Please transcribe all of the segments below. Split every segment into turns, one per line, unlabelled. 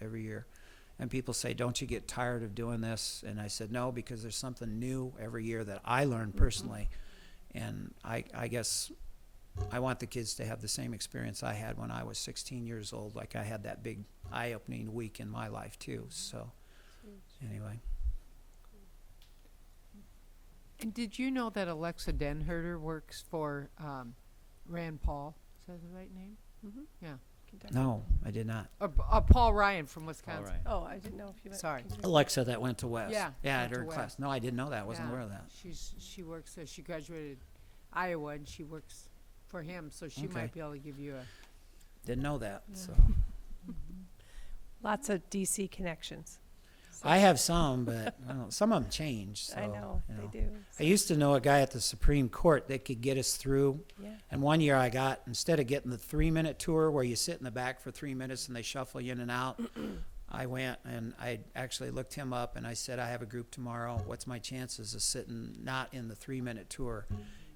every year. And people say, "Don't you get tired of doing this?" And I said, "No, because there's something new every year that I learn
Mm-hmm.
personally." And I, I guess I want the kids to have the same experience I had when I was 16 years old. Like I had that big eye-opening week in my life too. So, anyway,
And did you know that Alexa Denherter works for um, Rand Paul? Is that the right name?
Mhm.
Mm-hmm. Yeah.
Kentucky.
no, I did not.
Or, uh, Paul Ryan from Wisconsin.
All right.
Oh, I didn't know if you meant.
Sorry.
Kentucky.
Alexa that went to West.
Yeah,
yeah,
went
at
to
her
West.
class. No, I didn't know that. I wasn't
Yeah.
aware of that.
She's she works. Uh, she graduated Iowa, and she works for him. So she
Okay.
might be able to give you a.
Didn't know that. So
Lots of DC connections. So-
I have some, but I don't, some of them change. So,
I know,
you
they
know.
do.
I used to know a guy at the Supreme Court that could get us through.
Yeah.
And one year I got, instead of getting the three minute tour where you sit in the back for three minutes and they shuffle you in and out, I went and I actually looked him up and I said, I have a group tomorrow. What's my chances of sitting not in the three minute tour?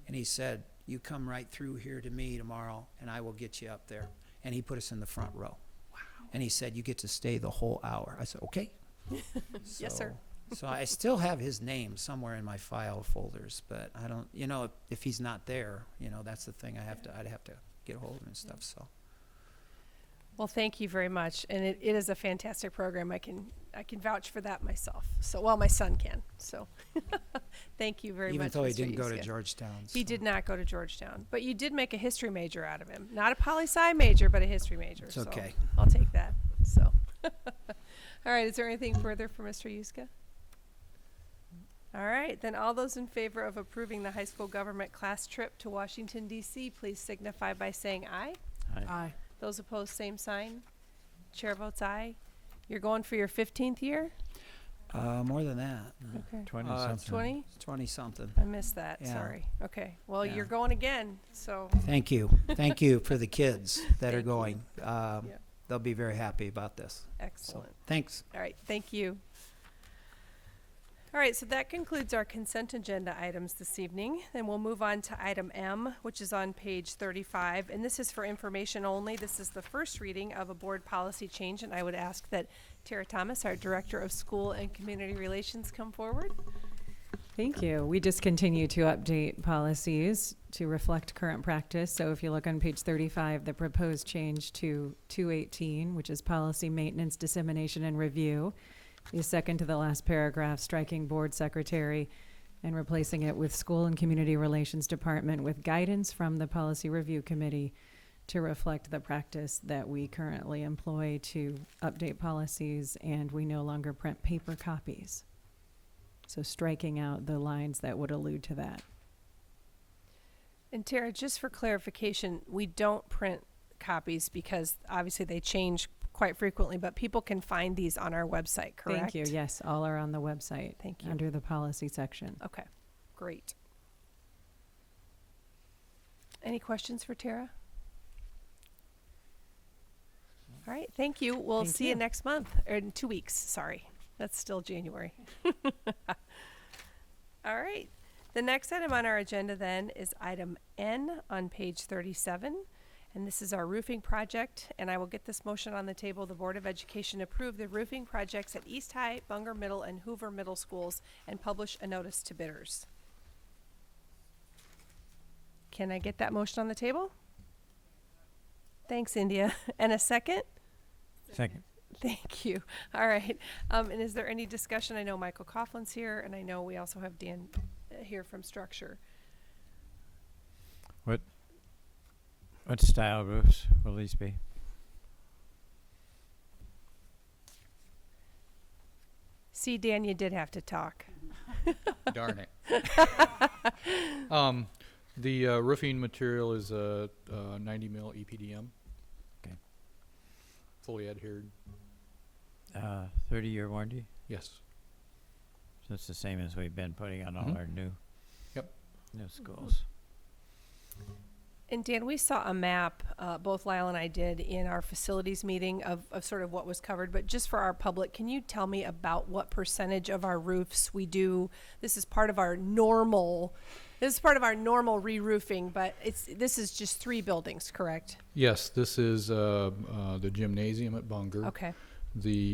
And he said, You come right through here to me tomorrow and I will get you up there. And he put us in the front row. Wow. And he said, You get to stay the whole hour. I said, Okay.
Yes, sir.
So- So I still have his name somewhere in my file folders, but I don't, you know, if, if he's not there, you know, that's the thing I have to, I'd have to get hold of him and stuff, so.
Well, thank you very much. And it, it is a fantastic program. I can, I can vouch for that myself. So, well, my son can. So, thank you very
Even
much.
though he
Mr.
didn't go to
Yuskin.
Georgetown.
He
so.
did not go to Georgetown, but you did make a history major out of him. Not a poli sci major, but a history major.
It's
so
okay.
I'll take that. So, all right. Is there anything further for Mr. Yuska? All right. Then all those in favor of approving the high school government class trip to Washington, D.C., please signify by saying aye.
Aye.
Those opposed, same sign. Chair votes aye. You're going for your 15th year?
Uh, more than that,
Okay.
20
Uh,
something.
20?
twenty something.
I missed that.
Yeah.
Sorry. Okay. Well,
Yeah.
you're going again. So,
Thank you, thank you for the kids that are
Thank you.
going. Um,
Yep.
they'll be very happy about this, so,
excellent.
thanks.
All right, thank you. All right, so that concludes our consent agenda items this evening. Then we'll move on to item M, which is on page 35, and this is for information only. This is the first reading of a board policy change, and I would ask that Tara Thomas, our Director of School and Community Relations, come forward.
Thank you. We just continue to update policies to reflect current practice. So if you look on page 35, the proposed change to 218, which is policy maintenance, dissemination, and review, the second to the last paragraph, striking board secretary and replacing it with school and community relations department with guidance from the policy review committee to reflect the practice that we currently employ to update policies and we no longer print paper copies. So striking out the lines that would allude to that.
And Tara, just for clarification, we don't print copies because obviously they change quite frequently, but people can find these on our website, correct?
Thank you. Yes, all are on the website.
Thank you.
Under the policy section.
Okay, great. Any questions for Tara? All right, thank you. We'll
Thank
see you
you.
next month, or in two weeks, sorry. That's still January. All right. The next item on our agenda then is item N on page 37. And this is our roofing project, and I will get this motion on the table. The Board of Education approve the roofing projects at East High, Bunger Middle, and Hoover Middle Schools and publish a notice to bidders. Can I get that motion on the table? Thanks, India. And a second?
Second.
Thank you. All right. Um, and is there any discussion? I know Michael Coughlin's here, and I know we also have Dan uh, here from Structure.
What style roofs will these be?
See, Dan, you did have to talk.
Darn it. um, the uh, roofing material is a, uh 90 mil EPDM.
'Kay.
Fully adhered.
Uh, 30 year warranty?
Yes.
So it's the same as we've been putting on all
Mhm.
our new
Yep.
new schools.
And Dan, we saw a map, uh, both Lyle and I did, in our facilities meeting of, of sort of what was covered. But just for our public, can you tell me about what percentage of our roofs we do? This is part of our normal, this is part of our normal re-roofing, but it's, this is just three buildings, correct?
Yes, this is uh, uh, the gymnasium at Bunger.
Okay,
the